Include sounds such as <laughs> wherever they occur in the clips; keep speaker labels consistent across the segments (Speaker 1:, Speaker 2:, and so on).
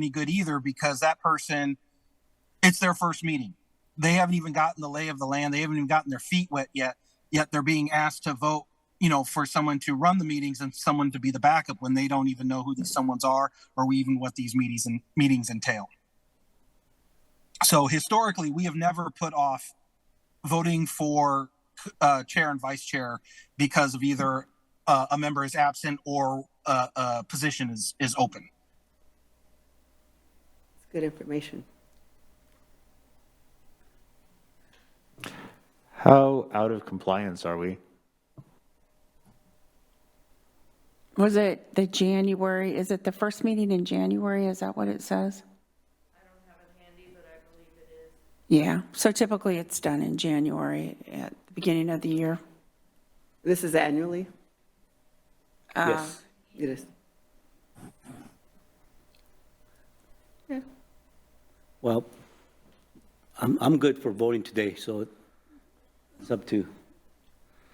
Speaker 1: any good either because that person, it's their first meeting. They haven't even gotten the lay of the land. They haven't even gotten their feet wet yet. Yet they're being asked to vote, you know, for someone to run the meetings and someone to be the backup when they don't even know who these someone's are or even what these meetings and meetings entail. So historically, we have never put off voting for uh, chair and vice chair because of either uh, a member is absent or uh, a position is is open.
Speaker 2: It's good information.
Speaker 3: How out of compliance are we?
Speaker 4: Was it the January, is it the first meeting in January? Is that what it says? I don't have it handy, but I believe it is. Yeah, so typically it's done in January at the beginning of the year.
Speaker 2: This is annually?
Speaker 5: Uh,
Speaker 3: Yes.
Speaker 2: It is.
Speaker 5: Well, I'm, I'm good for voting today, so it's up to,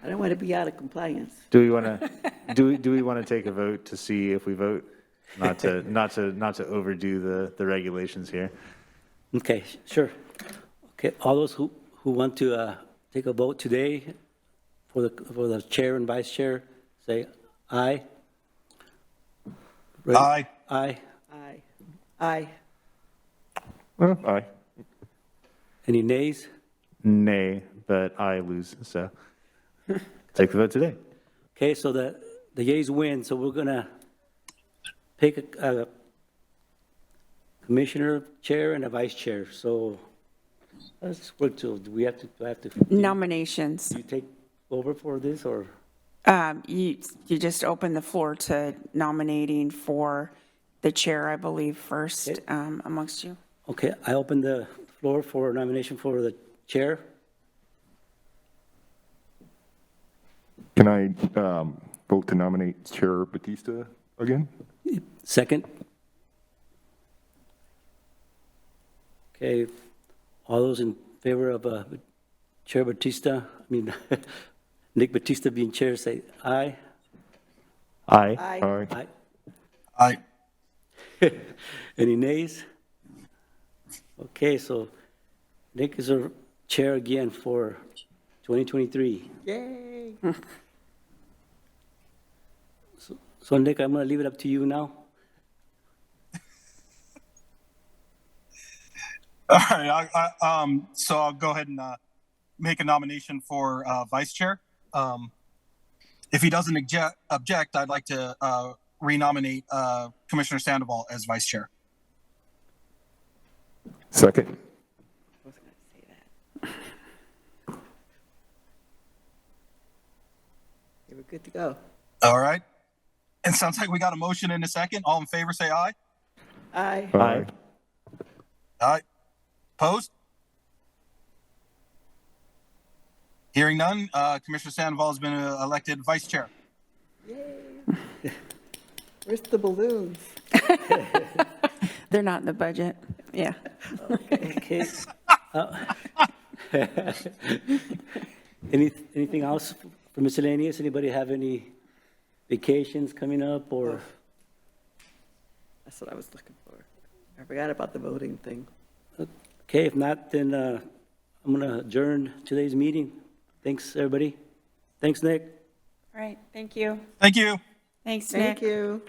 Speaker 2: I don't want to be out of compliance.
Speaker 3: Do we want to, do we, do we want to take a vote to see if we vote? Not to, not to, not to overdo the, the regulations here.
Speaker 5: okay, sure. Okay, all those who, who want to uh, take a vote today for the, for the chair and vice chair, say aye. Right?
Speaker 1: Aye.
Speaker 5: Aye.
Speaker 2: Aye. Aye.
Speaker 3: Aye.
Speaker 5: Any nays?
Speaker 3: Nay, but I lose,
Speaker 6: <laughs>
Speaker 3: so take the vote today.
Speaker 5: Okay, so the, the yeas win, so we're gonna pick a a commissioner, chair, and a vice chair, so let's work to, do we have to, do I have to, do
Speaker 4: Nominations,
Speaker 5: you take over for this, or?
Speaker 4: um, you, you just open the floor to nominating for the chair, I believe, first um, amongst you.
Speaker 5: Okay, I open the floor for nomination for the chair.
Speaker 6: Can I um, vote to nominate Chair Batista again?
Speaker 5: Second. Okay, all those in favor of uh, Chair Batista, I mean, <laughs> Nick Batista being chair, say aye.
Speaker 3: Aye.
Speaker 2: Aye.
Speaker 6: Aye.
Speaker 5: Aye.
Speaker 1: I
Speaker 5: <laughs> Any nays? Okay, so Nick is our chair again for 2023. Yay! <laughs> So Nick, I'm going to leave it up to you now.
Speaker 1: all right. I, I, um, so I'll go ahead and uh, make a nomination for uh, vice chair. Um, if he doesn't object, object I'd like to uh, renominate uh, Commissioner Sandoval as vice chair.
Speaker 6: Second.
Speaker 2: I was going to say that. You were good to go.
Speaker 1: All right. It sounds like we got a motion in a second. All in favor, say aye.
Speaker 2: Aye.
Speaker 3: Aye.
Speaker 1: Aye. Opposed? Hearing none, uh, Commissioner Sandoval has been uh, elected vice chair.
Speaker 2: Where's the balloons?
Speaker 4: They're not in the budget, yeah.
Speaker 5: Okay. Uh, <laughs> Any, anything else for miscellaneous? Anybody have any vacations coming up or?
Speaker 2: That's what I was looking for. I forgot about the voting thing.
Speaker 5: Okay, if not, then uh, I'm going to adjourn today's meeting. Thanks, everybody. Thanks, Nick.
Speaker 4: All right, thank you.
Speaker 1: Thank you.
Speaker 4: Thanks, Nick.
Speaker 2: Thank you.